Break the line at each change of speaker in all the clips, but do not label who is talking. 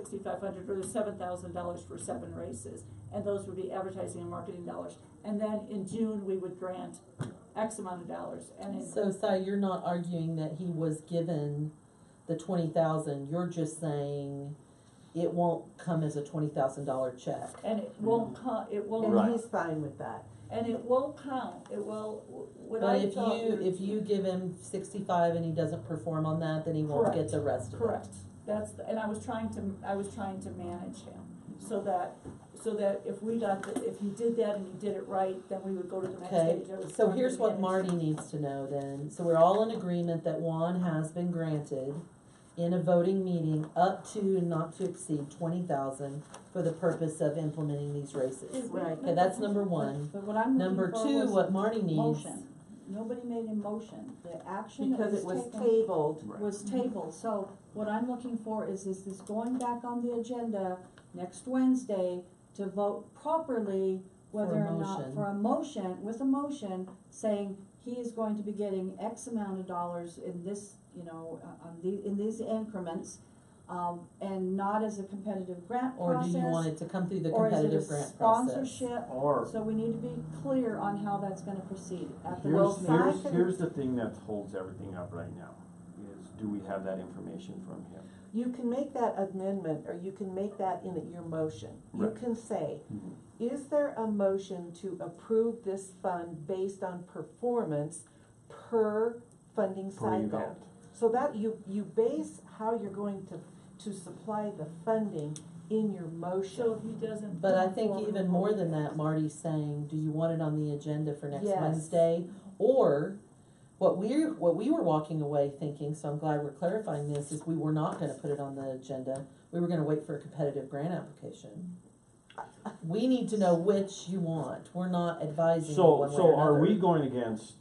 sixty-five hundred or the seven thousand dollars for seven races. And those would be advertising and marketing dollars. And then in June, we would grant X amount of dollars and in
So, Si, you're not arguing that he was given the twenty thousand, you're just saying it won't come as a twenty thousand dollar check.
And it won't count, it won't,
Right.
And he's fine with that.
and it won't count, it will, what
But
I
if
thought.
you, if you give him sixty-five and he doesn't perform on that, then he won't get the rest of it.
Correct, that's, the- and I was trying to, I was trying to manage him, so that, so that if we got, the- if he did that and he did it right, then we would go to the next
Okay,
stage. I was
so
trying to
here's
manage-
what Marty needs to know then, so we're all in agreement that Juan has been granted in a voting meeting up to and not to exceed twenty thousand for the purpose of implementing these races.
Right.
Okay, that's number one.
But what I'm
Number
looking
two,
for was
what Marty needs.
motion. Nobody made a motion. The action that
Because it
was
was
taken
tabled,
was
Mm-hmm.
tabled. So what I'm looking for is, is this going back on the agenda next Wednesday to vote properly whether
For a
or not,
motion.
for a motion, with a motion, saying he is going to be getting X amount of dollars in this, you know, uh, on the, in these increments, um, and not as a competitive grant
Or do
process.
you want it to come through the
or is it a
competitive grant process?
Sponsorship,
Or,
So we need to be clear on how that's gonna proceed at the
here's,
next
here's,
meeting.
can-
here's the thing that holds everything up right now, is do we have that information from him?
you can make that amendment, or you can make that in your motion. You
Right. Mm-hmm.
can say, is there a motion to approve this fund based on performance per funding
Per
cycle?
event.
So that you, you base how you're going to, to supply the funding in your
So
motion.
if he doesn't.
But I think even more than that, Marty's saying, do you want it on the agenda for next
Yes.
Wednesday? Or, what we're, what we were walking away thinking, so I'm glad we're clarifying this, is we were not gonna put it on the agenda. We were gonna wait for a competitive grant application. We need to know which you want. We're not advising you
So,
one way or
so are we
another.
going against?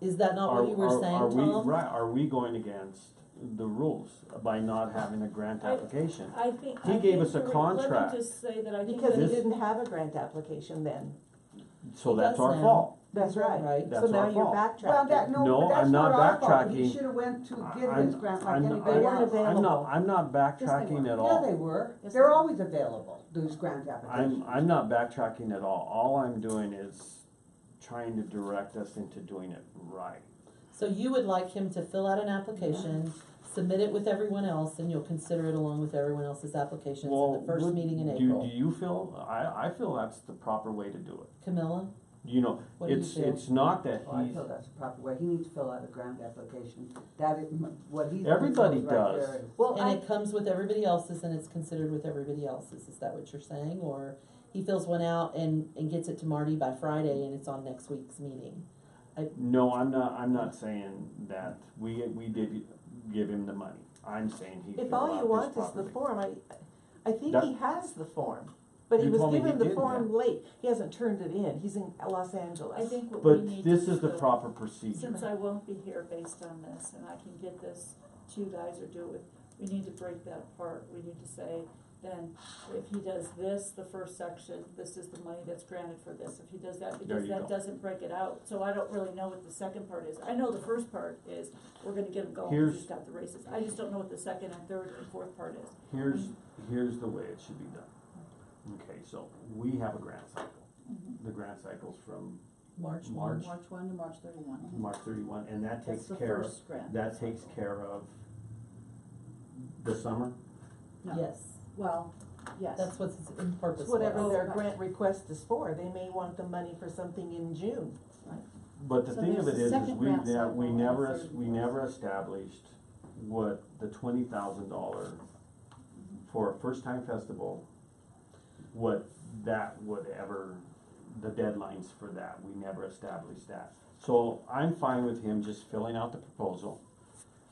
Is that not
are-
what you were
are-
saying,
are we-
Tom?
Right, are we going against the rules by not having a grant
I-
application?
I think.
He
I
gave
think
us a
you're right. Let
contract.
me just say that I think.
Because he
This-
didn't have a grant application then,
So
He
that's
does
our
now.
fault.
that's right.
Right?
So
That's
now
our
you're
fault.
Well, that,
backtracking.
No,
no, but that's
I'm
not
not
our fault,
backtracking.
he should've went to get
I'm-
his grant like
I'm-
anybody
I'm-
weren't
else.
I'm
available.
not, I'm not backtracking
were.
at
Yeah, they
all.
were,
Yes, they
they're
were.
always available, those grant applications.
I'm, I'm not backtracking at all. All I'm doing is trying to direct us into doing it right.
So you would like him to fill out an application, submit it with everyone else, and you'll consider it along with everyone else's applications at
Well,
the first
would-
meeting in
do-
April.
Do you feel, I, I feel that's the proper way to do it.
Camilla,
You know,
what do you
it's,
feel?
it's not that
Well, Oh, I
he's,
feel that's the proper way, he needs to fill out a grant application, that is m- what he's.
Everybody
doing right
does.
there is-
Well,
And it comes with everybody else's and it's considered with everybody else's, is that what you're saying? Or he fills one out and, and gets it to Marty by Friday and it's on next week's meeting?
no, I'm not, I'm not saying that. We, we did give him the money. I'm saying he
If
filled
all you
out
want
this
is the
properly.
form, I, I think
That-
he has the form, but he
You
was
told me
given
he
the
didn't
form
have-
late, he hasn't turned it in, he's in Los Angeles.
I think what we need.
But this
to
is the
do-
proper procedure.
Since I won't be here based on this, and I can get this to you guys or do it with, we need to break that apart. We need to say, then, if he does this, the first section, this is the money that's granted for this. If he does that,
There
because
you
that
go.
doesn't break it out, so I don't really know what the second part is. I know the first part is, we're gonna get him going, 'cause he's
Here's-
got the races. I just don't know what the second and third and fourth part is.
Here's, here's the way it should be done. Okay, so we have a grant cycle.
Mm-hmm.
The grant cycle's from
March one?
March,
March one to March thirty-one.
March thirty-one, and that
That's
takes
the
care of,
first grant.
that takes care of the summer.
No.
Yes,
Well, yes.
that's what's its purpose
It's whatever
was.
their
Right.
grant request is for, they may want the money for something in June.
But the
So
thing of it
there's a
is, is
second
we,
grant
that,
cycle
we
and a
never,
third
es- we
grant
never established what the twenty thousand dollar for a first time festival, what that would ever, the deadlines for that, we never established that. So I'm fine with him just filling out the proposal,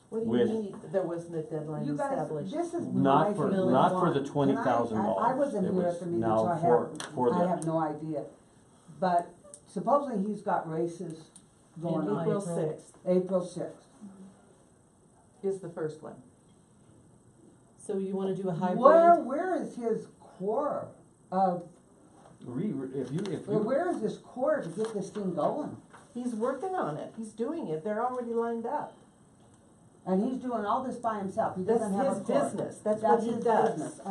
What do you
With-
mean, there wasn't a deadline
You guys,
established?
this is my
not for,
feeling
not
on-
for the twenty thousand
And I- I- I
dollars.
wasn't here at the meeting, so I
Now, for, for
I
the,
have no idea, but supposedly he's got races going
In
on,
April
April.
sixth
April sixth.
is the first one.
So you wanna do a
Where,
hybrid?
where is his core of,
re, re- if you, if
where-
you,
where is his core to get this thing going?
He's working on it, he's doing it, they're already lined up.
and he's doing all this by himself, he
That's
doesn't have a
his
clerk.
business, that's what he does.
his business.